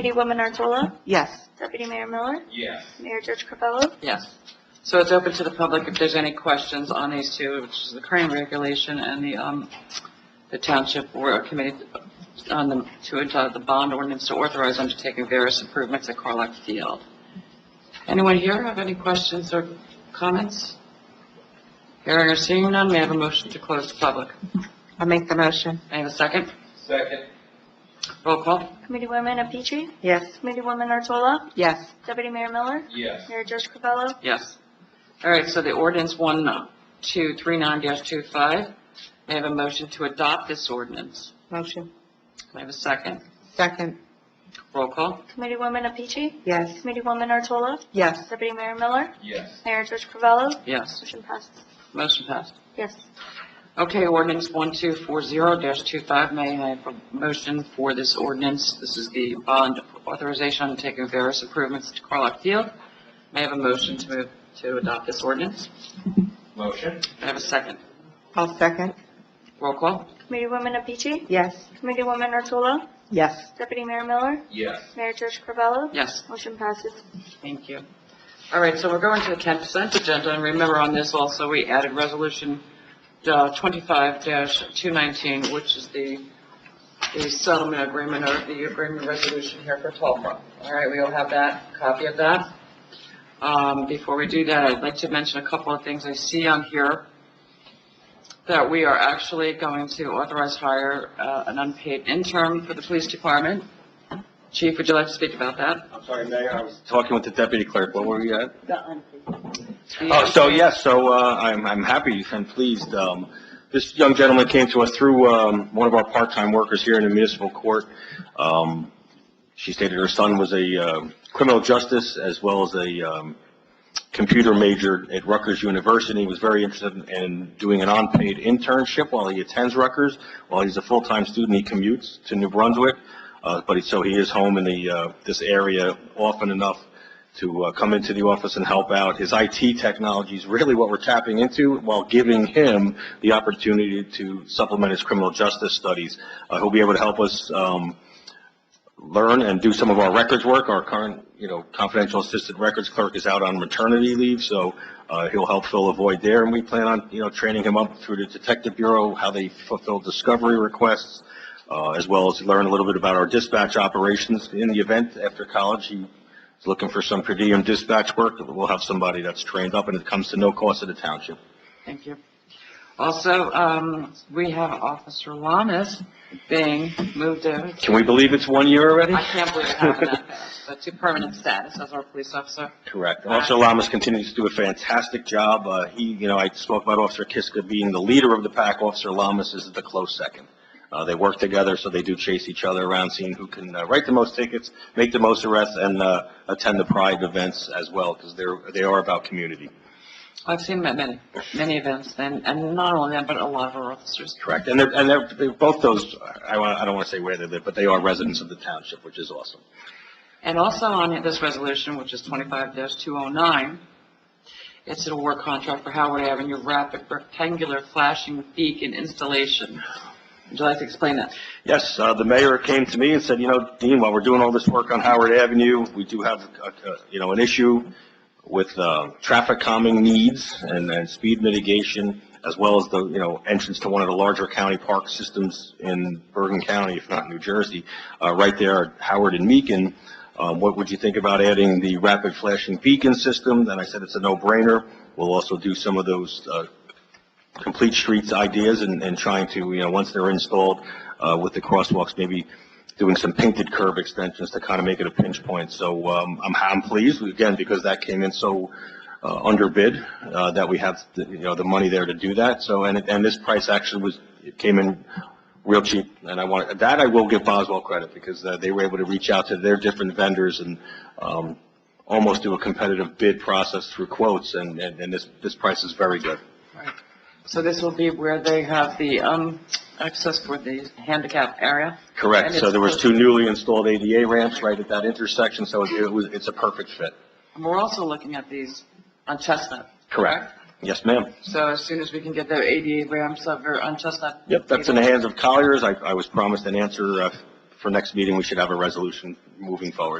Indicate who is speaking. Speaker 1: Deputy Woman Artola,
Speaker 2: Yes.
Speaker 1: Deputy Mayor Miller,
Speaker 3: Yes.
Speaker 1: Mayor George Carvello.
Speaker 4: Yes. So it's open to the public if there's any questions on these two, which is the current regulation and the, um, the township were committed on the, to adopt the bond ordinance to authorize undertaking various improvements at Carlock Field. Anyone here have any questions or comments? Hearing or seeing none, may I have a motion to close the public?
Speaker 2: I'll make the motion.
Speaker 4: May I have a second?
Speaker 3: Second.
Speaker 4: Roll call?
Speaker 1: Committee Woman Petrie,
Speaker 2: Yes.
Speaker 1: Committee Woman Artola,
Speaker 2: Yes.
Speaker 1: Deputy Mayor Miller,
Speaker 3: Yes.
Speaker 1: Mayor George Carvello.
Speaker 4: Yes. All right, so the ordinance 1239-25, may I have a motion to adopt this ordinance?
Speaker 2: Motion.
Speaker 4: May I have a second?
Speaker 2: Second.
Speaker 4: Roll call?
Speaker 1: Committee Woman Petrie,
Speaker 2: Yes.
Speaker 1: Committee Woman Artola,
Speaker 2: Yes.
Speaker 1: Deputy Mayor Miller,
Speaker 3: Yes.
Speaker 1: Mayor George Carvello.
Speaker 4: Yes.
Speaker 1: Motion passed.
Speaker 4: Motion passed.
Speaker 1: Yes.
Speaker 4: Okay, ordinance 1240-25, may I have a motion for this ordinance? This is the bond authorization undertaking various improvements to Carlock Field. May I have a motion to move to adopt this ordinance?
Speaker 3: Motion?
Speaker 4: May I have a second?
Speaker 2: I'll second.
Speaker 4: Roll call?
Speaker 1: Committee Woman Petrie,
Speaker 2: Yes.
Speaker 1: Committee Woman Artola,
Speaker 2: Yes.
Speaker 1: Deputy Mayor Miller,
Speaker 3: Yes.
Speaker 1: Mayor George Carvello.
Speaker 4: Yes.
Speaker 1: Motion passes.
Speaker 4: Thank you. All right, so we're going to the consent agenda, and remember on this also, we added Resolution uh, 25-219, which is the, the settlement agreement or the agreement resolution here for Tulsa. All right, we all have that, copy of that. Um, Before we do that, I'd like to mention a couple of things I see on here that we are actually going to authorize hire uh, an unpaid intern for the police department. Chief, would you like to speak about that?
Speaker 5: I'm sorry, Mayor, I was talking with the deputy clerk, what were we at?
Speaker 4: The
Speaker 5: Oh, so,
Speaker 4: unpaid-
Speaker 5: yes, so, uh, I'm, I'm happy and pleased, um, this young gentleman came to us through, um, one of our part-time workers here in the municipal court. Um, she stated her son was a, uh, criminal justice as well as a, um, computer major at Rutgers University, was very interested in doing an unpaid internship while he attends Rutgers. While he's a full-time student, he commutes to New Brunswick, uh, but he, so he is home in the, uh, this area often enough to uh, come into the office and help out. His IT technology is really what we're tapping into while giving him the opportunity to supplement his criminal justice studies. Uh, He'll be able to help us um, learn and do some of our records work. Our current, you know, confidential assistant records clerk is out on maternity leave, so uh, he'll help fill a void there. And we plan on, you know, training him up through the Detective Bureau, how they fulfill discovery requests, uh, as well as learn a little bit about our dispatch operations. In the event, after college, he is looking for some per diem dispatch work, we'll have somebody that's trained up, and it comes to no cost to the township.
Speaker 4: Thank you. Also, um, we have Officer Lamas being moved over.
Speaker 5: Can we believe it's one year already?
Speaker 4: I can't believe it happened that fast, but to permanent status as our police officer.
Speaker 5: Correct. Officer Lamas continues to do a fantastic job. Uh, he, you know, I spoke about Officer Kiska being the leader of the pack. Officer Lamas is the close second. Uh, they work together, so they do chase each other around, seeing who can uh, write the most tickets, make the most arrests, and, uh, attend the pride events as well, because they're, they are about community.
Speaker 4: I've seen him at many, many events, and, and not only that, but a lot of our officers.
Speaker 5: Correct. And they're, and they're, they're both those, I want, I don't want to say where they live, but they are residents of the township, which is awesome.
Speaker 4: And also on this resolution, which is twenty-five two oh nine, it's an award contract for Howard Avenue Rapid Rectangular Flashing Beacon Installation. Would you like to explain that?
Speaker 5: Yes, uh, the mayor came to me and said, you know, Dean, while we're doing all this work on Howard Avenue, we do have, uh, uh, you know, an issue with uh, traffic calming needs and and speed mitigation, as well as the, you know, entrance to one of the larger county park systems in Bergen County, if not New Jersey, uh, right there at Howard and Meakin. Um, What would you think about adding the rapid flashing beacon system? Then I said it's a no-brainer. We'll also do some of those uh, complete streets ideas and, and trying to, you know, once they're installed, uh, with the crosswalks, maybe doing some painted curb extensions to kind of make it a pinch point. So, um, I'm, I'm pleased, again, because that came in so, uh, under bid, uh, that we have, the- you know, the money there to do that. So, and, it- and this price actually was, it came in real cheap, and I want, that I will give Boswell credit, because uh, they were able to reach out to their different vendors and, um, almost do a competitive bid process through quotes, and, and, and this, this price is very good.
Speaker 4: Right. So this will be where they have the, um, access for the handicap area?
Speaker 5: Correct,
Speaker 4: And
Speaker 5: so
Speaker 4: it's
Speaker 5: there was
Speaker 4: close.
Speaker 5: two newly installed ADA ramps right at that intersection, so it it was, it's a perfect fit.
Speaker 4: And we're also looking at these on Chestnut.
Speaker 5: Yes, ma'am.
Speaker 4: So as soon as we can get the ADA ramps up or on Chestnut.
Speaker 5: Yep, that's in the hands of Colliers, I, I was promised an answer uh, for next meeting, we should have a resolution moving forward.